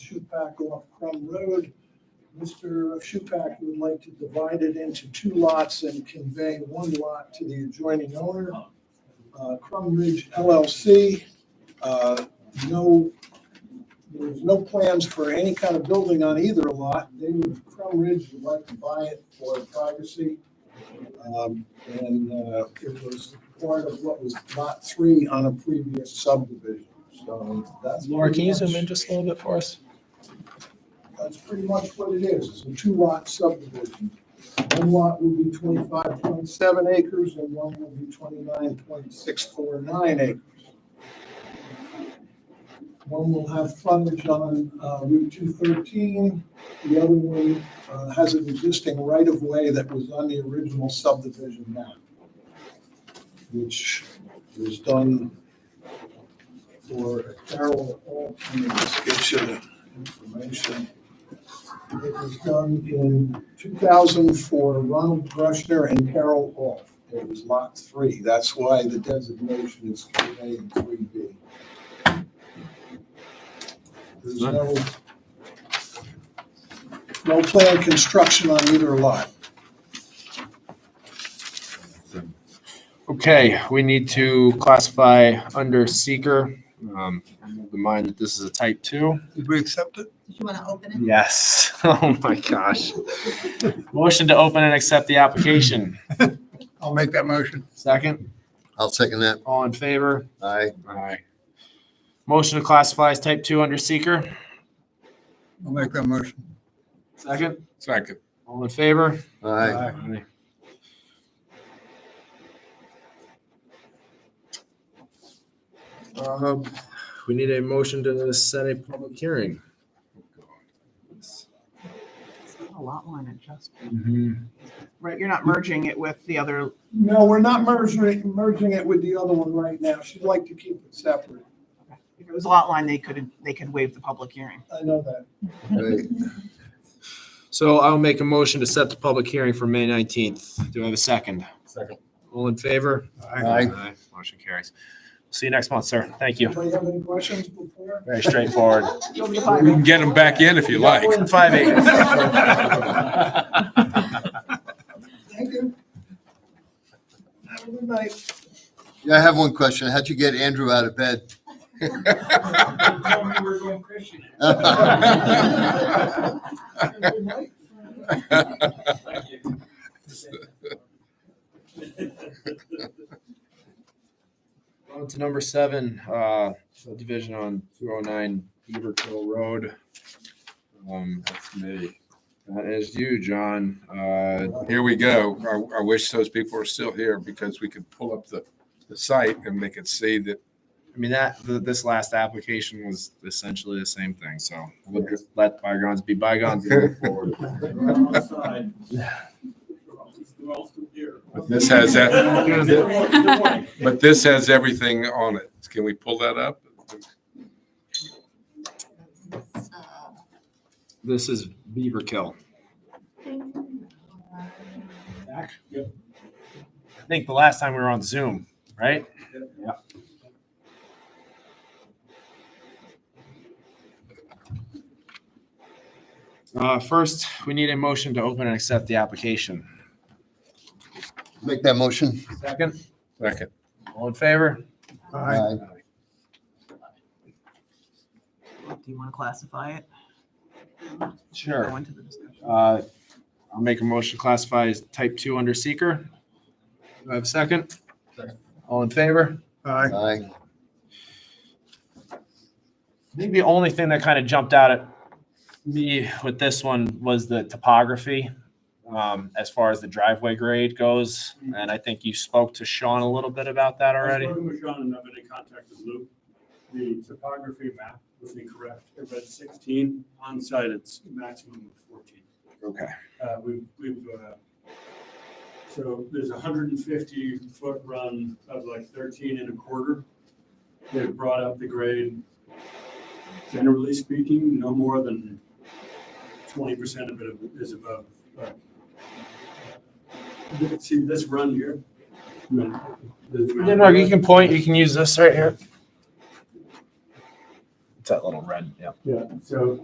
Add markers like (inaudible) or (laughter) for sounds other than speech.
Shupack off Crum Road. Mr. Shupack would like to divide it into two lots and convey one lot to the adjoining owner. Uh, Crum Ridge LLC, uh, no, there's no plans for any kind of building on either lot. They would, Crum Ridge would like to buy it for privacy. Um, And uh, it was part of what was lot three on a previous subdivision, so that's. Laura, can you zoom pretty in much- just a little bit for us? That's pretty much what it is, it's a two-lot subdivision. One lot will be twenty-five point seven acres and one will be twenty-nine point six four nine acres. One will have frontage on uh, Route two thirteen, the other one uh, has an existing right-of-way that was on the original subdivision map, which was done for Carol Altman's information. It was done in 2000 for Ronald Brushner and Carol Off. It was Lot 3. That's why the designation is 3A and 3B. There's no, no planned construction on either lot. Okay, we need to classify under seeker. Um, the mind that this is a type two. Did we accept it? Did you want to open it? Yes. (laughs) Oh my gosh. Motion to open and accept the application. I'll make that motion. Second, I'll second that. all in favor? Aye. Aye. Motion to classify as type two under seeker. I'll make that motion. Second, Second. all in favor? Aye. Aye. Um, we need a motion to set a public hearing. It's not A lot line adjustment. Mhm. Right, you're not merging it with the other, No, we're not merging, it- merging it with the other one right now. She'd like to keep it separate. if it was lot line, they could, they could waive the public hearing. I know that. Aye. So I'll make a motion to set the public hearing for May nineteenth. Do I have a second? Second. All in favor? Aye. Motion carries. See you next month, sir. Thank you. Do you have any questions before? Very straightforward. Go to the We can bylaw. get them back in if you like. More than five (laughs) acres. Thank you. Have a good night. Yeah, I have one question. How'd you get Andrew out of bed? Have a good night. On to number seven, uh, subdivision on two oh nine Beaver Hill Road. Um, that's me. That is you, John. Uh, Here we go. I, I wish those people were still here because we could pull up the, the site and they could see that. I mean, that, th- this last application was essentially the same thing, so we'll just let bygones be bygones. and (laughs) move forward. But This (laughs) has, that. Good. but this has everything on it. Can we pull that up? This is Beaver Kill. I think the last time we were on Zoom, right? Uh, first, we need a motion to open and accept the application. Make that motion. Second, Second. all in favor? Aye. Do you want to classify it? Go Sure. into the discussion. Uh, I'll make a motion to classify as type two under seeker. Do I have a second? All in favor? Aye. I think the only thing that kind of jumped out at me with this one was the topography um, as far as the driveway grade goes. And I think you spoke to Sean a little bit about that already. I've spoken with Sean and I've been in contact with Luke. The topography map would be correct. It read 16, On site, it's maximum of 14. Okay. Uh, We've, we've, uh, so there's a hundred and fifty foot run of like thirteen and a quarter. They've brought up the grade, generally speaking, no more than twenty percent of it is above. but- See this run here? I mean, the amount of- Mark, you can point, you can use this right here. It's that little red, yeah. Yeah, so